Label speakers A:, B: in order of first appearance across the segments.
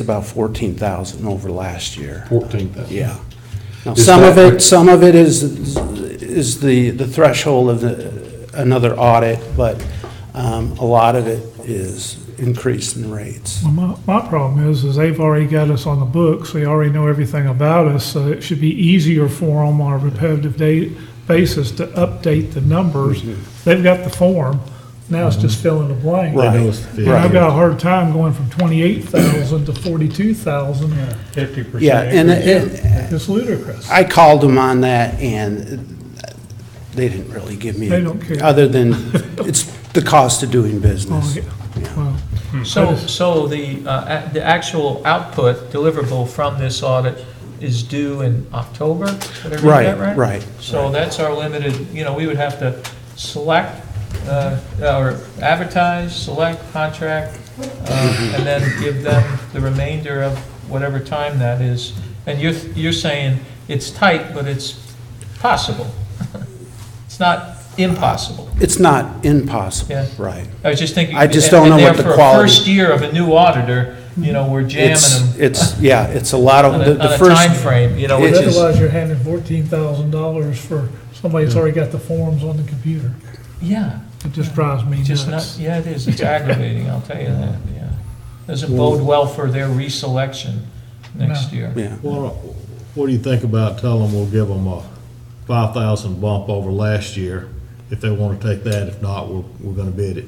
A: about fourteen thousand over last year.
B: Fourteen thousand.
A: Yeah. Now,
B: Is
A: some of
B: that-
A: it, some of it is, is the, the threshold of the, another audit, but, um, a lot of it is increase in rates.
C: Well, my, my problem is, is they've already got us on the books, they already know everything about us, so it should be easier for them on a repetitive day basis to update the numbers.
A: Mm-hmm.
C: They've got the form, now it's just fill in the blank.
A: Right.
B: know it's the
C: And I've
A: right.
C: got a hard time going from twenty-eight thousand to forty-two thousand,
D: Fifty percent.
A: Yeah, and, and,
C: it's ludicrous.
A: I called them on that, and they didn't really give me.
C: They don't care.
A: Other than, it's the cost of doing
C: Oh,
A: business.
C: yeah. Well,
A: Hmm,
D: So, so the, uh, a- the actual output deliverable from this audit is due in October? Did I read that
A: Right, right.
D: So that's our limited, you know, we would have to select, uh, or advertise, select, contract,
A: Mm-hmm.
D: uh, and then give them the remainder of whatever time that is. And you're, you're saying it's tight, but it's possible. It's not impossible.
A: It's not impossible,
D: Yeah.
A: right.
D: I was just thinking.
A: I just don't
D: and-
A: know
D: and
A: what the
D: therefore,
A: quality-
D: First year of a new auditor, you know, we're jamming
A: It's,
D: them
A: it's, yeah, it's a lot of,
D: on
A: the
D: a,
A: the
D: on a
A: first.
D: timeframe, you know,
A: it
D: which
A: is-
D: is,
C: Otherwise, you're handing fourteen thousand dollars for somebody that's already got the forms on the computer.
D: yeah,
C: It just drives me
D: just not,
C: nuts.
D: yeah, it is, it's aggravating, I'll tell you that, yeah. Doesn't bode well for their reselection next
C: No.
D: year.
A: Yeah,
B: Well, what do you think about telling them we'll give them a five thousand bump over last year? If they wanna take that, if not, we're, we're gonna bid it.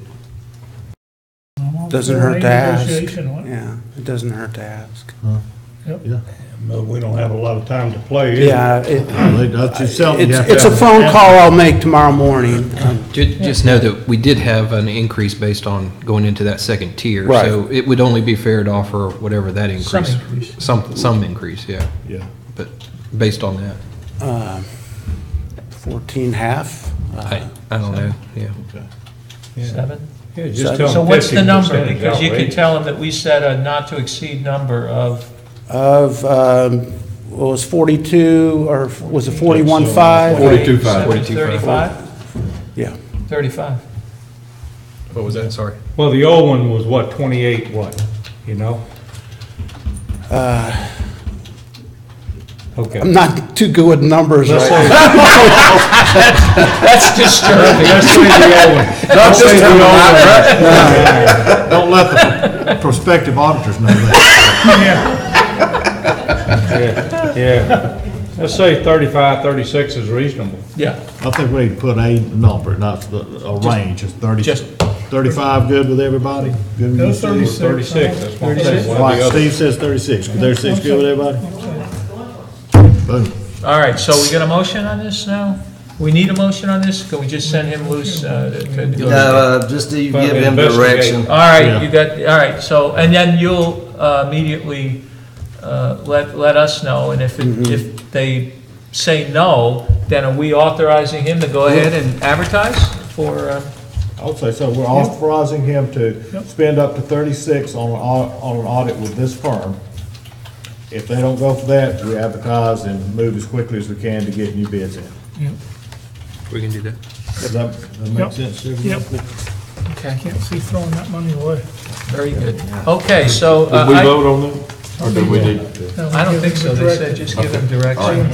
A: doesn't hurt to ask.
C: Negotiation on it.
A: Yeah, it doesn't hurt to ask.
B: Yeah.
E: But we don't have a lot of time to play. either.
A: Yeah, it-
B: They- That's just something you have
A: it's,
B: to.
A: it's a phone call I'll make tomorrow morning. Um,
F: Ju- Just know that we did have an increase based on going into that second tier.
A: Right.
F: So it would only be fair to offer whatever that increase.
D: Some increase.
F: Some, some increase, yeah,
B: Yeah.
F: but based on that,
A: Fourteen half,
F: I, I don't know, yeah.
D: Seven?
G: Yeah,
A: So-
G: just tell them
D: So what's the
G: 50%
D: number?
G: is
D: Because you
G: outrageous.
D: could tell them that we set a not to exceed number of,
A: of, um, what was forty-two, or was it forty-one five?
G: Forty-two five.
D: Thirty-five?
A: Yeah,
D: Thirty-five.
F: What was that, sorry?
G: Well, the old one was what, 28 what, you know? Okay.
A: I'm not too good with numbers right now.
D: That's disturbing.
G: Let's say the old one. Let's say the old one.
B: Don't let the prospective auditors know that.
G: Yeah, yeah. Let's say 35, 36 is reasonable.
D: Yeah.
B: I think we need to put a number, not the- a range, it's thirty,
D: just-
B: thirty-five good with everybody? Good with
C: Go
B: you, Steve?
C: 36.
G: 36, that's what I'm saying.
D: 36?
G: one or the
B: Like
G: other.
B: Steve says thirty-six, but thirty-six good with everybody? Boom.
D: All right, so we got a motion on this now? We need a motion on this? Can we just send him loose? uh, to- to-
H: Uh, just to give him
G: Investigate.
H: direction.
D: All right, you got, all right, so, and then you'll uh, immediately uh, let, let us know, and if, it- if they say no, then are we authorizing him to go ahead and advertise for, um,
B: I would say so. We're authorizing him to spend up to thirty-six on an au- on an audit with this firm. If they don't go for that, we advertise and move as quickly as we can to get new bids in.
C: Yep.
F: We can do that.
B: Does that, that
C: Yep.
B: make sense to everyone?
C: Yep,
D: okay,
C: can't see throwing that money away.
D: very good. Okay, so, uh,
G: Did we
D: I
G: vote on that? Or did we need?
D: I don't think so, they said just give him direction.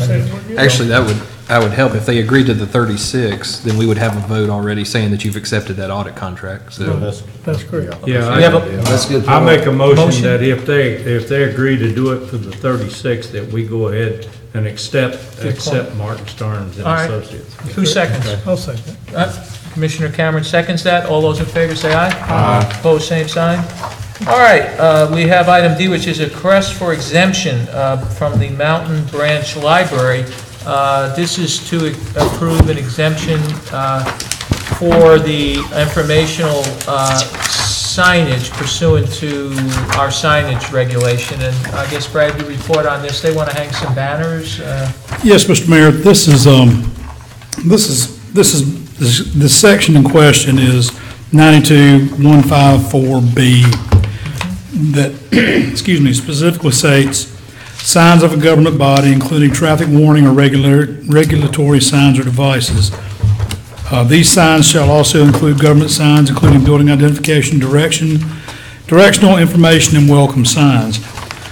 F: Actually, that would, that would help. If they agreed to the 36, then we would have a vote already saying that you've accepted that audit contract, so.
B: That's-
C: That's correct.
G: Yeah.
D: We have
G: I-
D: a-
H: That's a good.
G: I make a
D: Motion.
G: motion that if they, if they agree to do it for the 36, that we go ahead and accept,
D: Good call.
G: accept Martin Starnes and
D: All right.
G: Associates.
D: Two seconds.
C: I'll second.
D: Uh, Commissioner Cameron seconds that. All those in favor say aye. Aye. Opposed, same sign. All right, uh, we have item D, which is a request for exemption uh, from the Mountain Branch Library. Uh, This is to approve an exemption uh, for the informational uh, signage pursuant to our signage regulation. And I guess, Brad, you report on this. They want to hang some banners. uh,
I: Yes, Mr. Mayor, this is, um, this is, this is, this, this section in question is 92154B that, excuse me, specifically states, "Signs of a government body, including traffic warning or regular, regulatory signs or devices. Uh, These signs shall also include government signs, including building identification, direction, directional information, and welcome signs."